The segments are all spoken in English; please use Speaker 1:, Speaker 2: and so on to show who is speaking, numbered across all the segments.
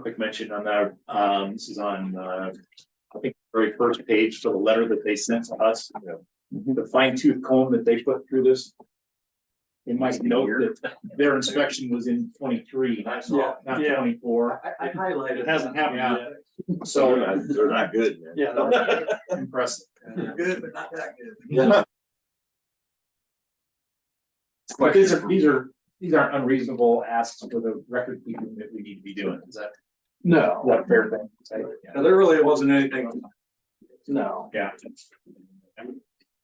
Speaker 1: quick mention on that, um, this is on, uh, I think the very first page, so the letter that they sent to us.
Speaker 2: Mm-hmm.
Speaker 1: The fine tooth comb that they put through this. They might note that their inspection was in twenty-three, not
Speaker 2: Yeah.
Speaker 1: not
Speaker 2: Yeah.
Speaker 1: twenty-four,
Speaker 2: I, I highlighted.
Speaker 1: It hasn't happened yet.
Speaker 3: They're
Speaker 1: so
Speaker 3: not- they're not good, man.
Speaker 2: Yeah. no,
Speaker 1: impressive.
Speaker 2: they're Good, but not that good.
Speaker 1: But these are, these are, these aren't unreasonable asks for the record keeping that we need to be doing, is that, is
Speaker 2: No,
Speaker 1: that a fair thing? to say?
Speaker 2: no, there really wasn't anything, no.
Speaker 1: Yeah.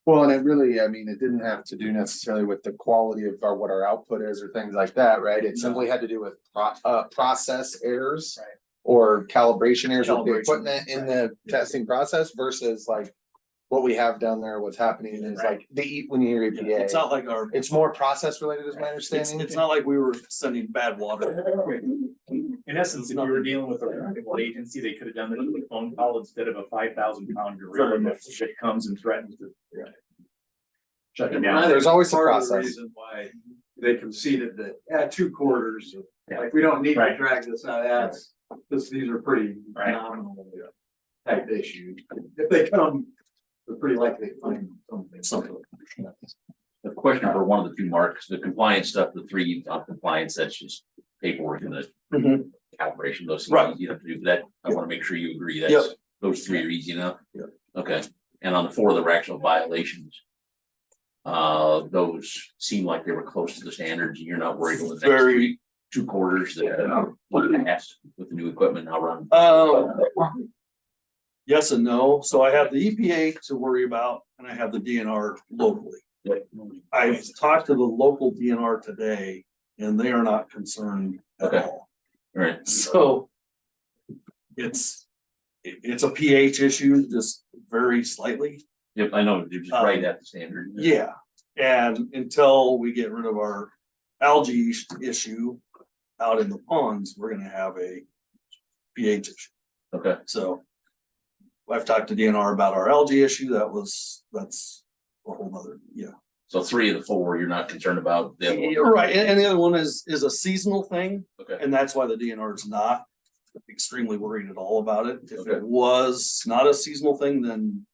Speaker 4: Well, and it really, I mean, it didn't have to do necessarily with the quality of our, what our output is or things like that, right? It simply had to do with pro- uh, process errors.
Speaker 1: Right.
Speaker 4: Or calibration errors with the
Speaker 1: Calibration,
Speaker 4: equipment in the testing process versus like. What we have down there, what's happening is
Speaker 1: Right.
Speaker 4: like the eat when you hear
Speaker 2: It's
Speaker 4: EPA.
Speaker 2: not like our,
Speaker 4: It's more process related is my
Speaker 2: it's,
Speaker 4: understanding.
Speaker 2: it's not like we were sending bad water.
Speaker 1: In essence, if you were dealing with a reputable agency, they could have done it with a phone call instead of a five thousand pound gorilla that shit comes and threatens to. Shut them down.
Speaker 4: There's always a
Speaker 2: Part of the
Speaker 4: process.
Speaker 2: Reason why they conceded that, yeah, two quarters,
Speaker 1: Yeah.
Speaker 2: like, we don't need to
Speaker 1: Right.
Speaker 2: drag this out, that's, this, these are pretty
Speaker 1: Right.
Speaker 2: nominal. Type issues, if they come, they're pretty likely to find something. Something.
Speaker 5: The question for one of the two marks, the compliance stuff, the three on compliance, that's just paperwork and the
Speaker 4: Mhm.
Speaker 5: calibration, those
Speaker 2: Mm-hmm. Right.
Speaker 5: things you have to do, that, I wanna make sure you agree,
Speaker 4: Yep.
Speaker 5: that's, those three are easy enough.
Speaker 2: Yep.
Speaker 5: Okay, and on the four of the actual violations. Uh, those seem like they were close to the standards, and you're not worried about the next
Speaker 2: Very-
Speaker 5: three, two quarters that, uh, what it has with the new equipment, I'll run. uh,
Speaker 2: Oh. Yes and no, so I have the EPA to worry about and I have the DNR locally. I've talked to the local DNR today and they are not concerned at
Speaker 5: Okay.
Speaker 2: all,
Speaker 5: Alright,
Speaker 2: so. It's, it- it's a pH issue, just very slightly,
Speaker 5: yep, I know, you're just right at the standard.
Speaker 2: Um, yeah, and until we get rid of our algae is- issue. Out in the ponds, we're gonna have a pH issue.
Speaker 5: Okay,
Speaker 2: So. I've talked to DNR about our algae issue, that was, that's a whole nother, yeah.
Speaker 5: so three of the four, you're not concerned about, the other one.
Speaker 2: You're right, and, and the other one is, is a seasonal thing,
Speaker 5: okay.
Speaker 2: and that's why the DNR is not extremely worried at all about it. If
Speaker 5: Okay.
Speaker 2: it was not a seasonal thing, then,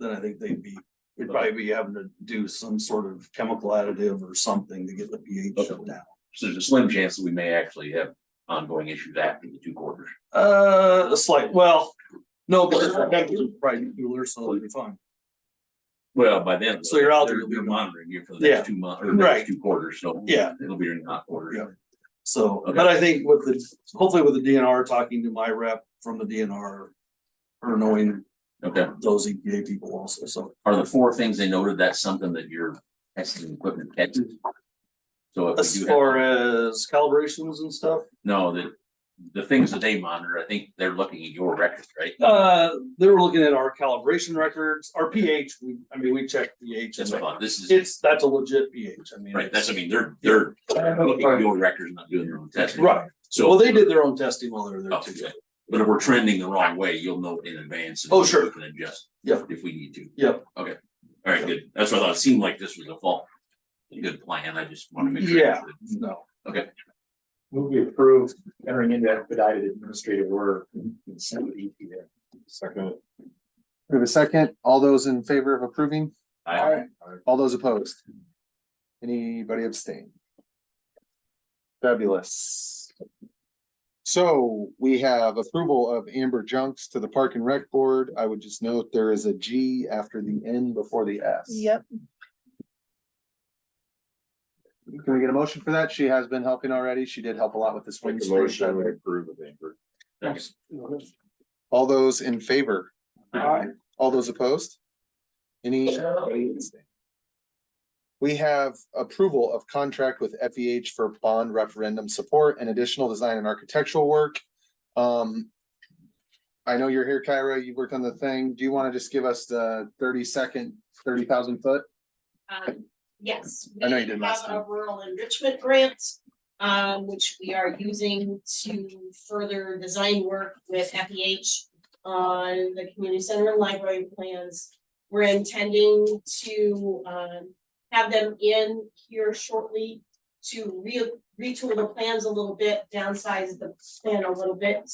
Speaker 2: then I think they'd be, it'd probably be having to do some sort of chemical additive or something to get the pH
Speaker 5: Okay.
Speaker 2: down.
Speaker 5: So there's a slim chance that we may actually have ongoing issues after the two quarters.
Speaker 2: Uh, a slight, well, no, but it's probably cooler, so it'll be fine.
Speaker 5: Well, by then.
Speaker 2: So you're out there,
Speaker 5: they're- They're
Speaker 2: you'll be-
Speaker 5: monitoring you for the next two months or the
Speaker 2: Right.
Speaker 5: next two quarters, so.
Speaker 2: Yeah.
Speaker 5: It'll be during the hot quarter.
Speaker 2: Yeah. So,
Speaker 5: Okay.
Speaker 2: but I think with the, hopefully with the DNR, talking to my rep from the DNR. Or knowing
Speaker 5: Okay,
Speaker 2: those EPA people also, so
Speaker 5: are the four things they noted, that's something that your testing equipment catches? So if we
Speaker 2: as
Speaker 5: do have,
Speaker 2: far as calibrations and stuff.
Speaker 5: no, the, the things that they monitor, I think they're looking at your records, right?
Speaker 2: Uh, they were looking at our calibration records, our pH, we, I mean, we checked pH.
Speaker 5: That's what I thought, this is,
Speaker 2: It's, that's a legit pH, I mean.
Speaker 5: right, that's, I mean, they're, they're looking at your records, not doing their own testing.
Speaker 2: Right,
Speaker 5: So.
Speaker 2: well, they did their own testing while they were there
Speaker 5: Oh,
Speaker 2: too.
Speaker 5: yeah. But if we're trending the wrong way, you'll know in advance. and
Speaker 2: Oh, sure.
Speaker 5: we can adjust.
Speaker 2: Yeah.
Speaker 5: If we need to.
Speaker 2: Yeah.
Speaker 5: Okay, all right, good. That's what I thought. It seemed like this was a fault. A good plan. I just want to make sure.
Speaker 2: Yeah. No.
Speaker 1: Move we approve entering into expedited administrative order. and send it to EP there.
Speaker 4: Second. We have a second. All those in favor of approving?
Speaker 5: I,
Speaker 4: All those opposed? Anybody abstain? Fabulous. So we have approval of Amber Junks to the Park and Rec Board. I would just note there is a G after the N before the S.
Speaker 6: Yep,
Speaker 4: Can we get a motion for that? She has been helping already. She did help a lot with this
Speaker 3: Make
Speaker 4: one.
Speaker 3: a motion, we approve of Amber.
Speaker 5: thanks.
Speaker 4: All those in favor?
Speaker 2: Aye.
Speaker 4: All those opposed? Any? We have approval of contract with FEH for bond referendum support and additional design and architectural work. Um. I know you're here, Kyra, you worked on the thing. Do you want to just give us the thirty second, thirty thousand foot?
Speaker 7: Um, yes.
Speaker 4: I know you
Speaker 7: we
Speaker 4: did last
Speaker 7: Have a
Speaker 4: time.
Speaker 7: rural enrichment grant, um, which we are using to further design work with FEH on the community center and library plans. We're intending to, um, have them in here shortly to re- retool the plans a little bit, downsize the plan a little bit,